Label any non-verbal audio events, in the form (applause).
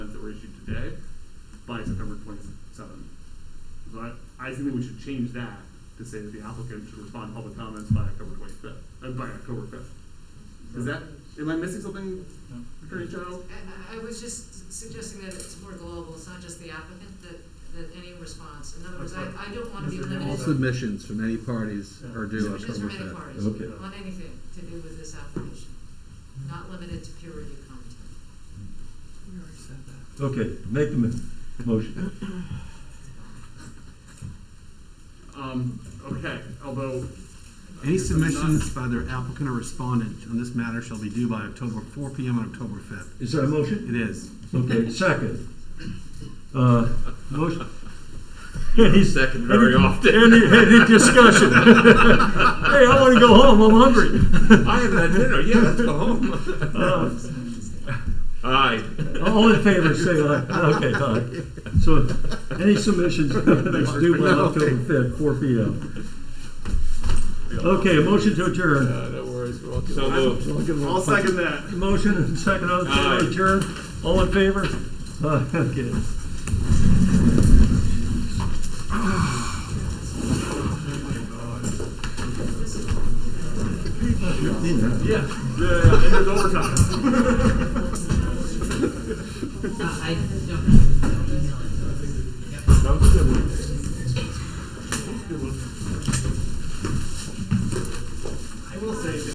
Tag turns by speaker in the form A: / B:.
A: by September twenty-seven. So I, I think we should change that to say that the applicant should respond to public comments by October twenty-fifth, uh, by October fifth. Is that, am I missing something,
B: No.
A: Attorney General?
C: I, I was just suggesting that it's more global, it's not just the applicant, that, that any response, in other words, I, I don't wanna be
B: Mr.
C: limited.
B: All
D: All
B: Hamilton.
C: to
D: submissions from any parties are due
C: Submissions
D: October
C: from any
D: fifth.
C: parties,
B: Okay.
C: on anything to do with this application, not limited to peer review content.
B: Okay, make the mo- motion.
A: Um, okay, although.
D: Any submissions by their applicant or respondent on this matter shall be due by October, four P M on October fifth.
B: Is that a motion?
D: It is.
B: Okay, second. Uh, motion.
E: second very
B: Any-
E: often.
B: Any, any
E: (laughs)
B: discussion? Hey, I wanna go home, I'm hungry.
E: I haven't had dinner. Yeah, let's go home.
B: (laughs) Uh,
A: Um,
E: Aye.
B: All in favor, say aye. Okay, aye. So, any submissions, it's due by October fifth, four P M. Okay, motion to adjourn.
E: Uh, no worries. We're all good. So moved.
A: I'll second that.
B: Motion and second, all in favor,
E: Aye.
B: adjourn. All in favor? Uh, okay.
A: Yeah, yeah, yeah, it is overtime.
C: I don't know.
B: That was a good one.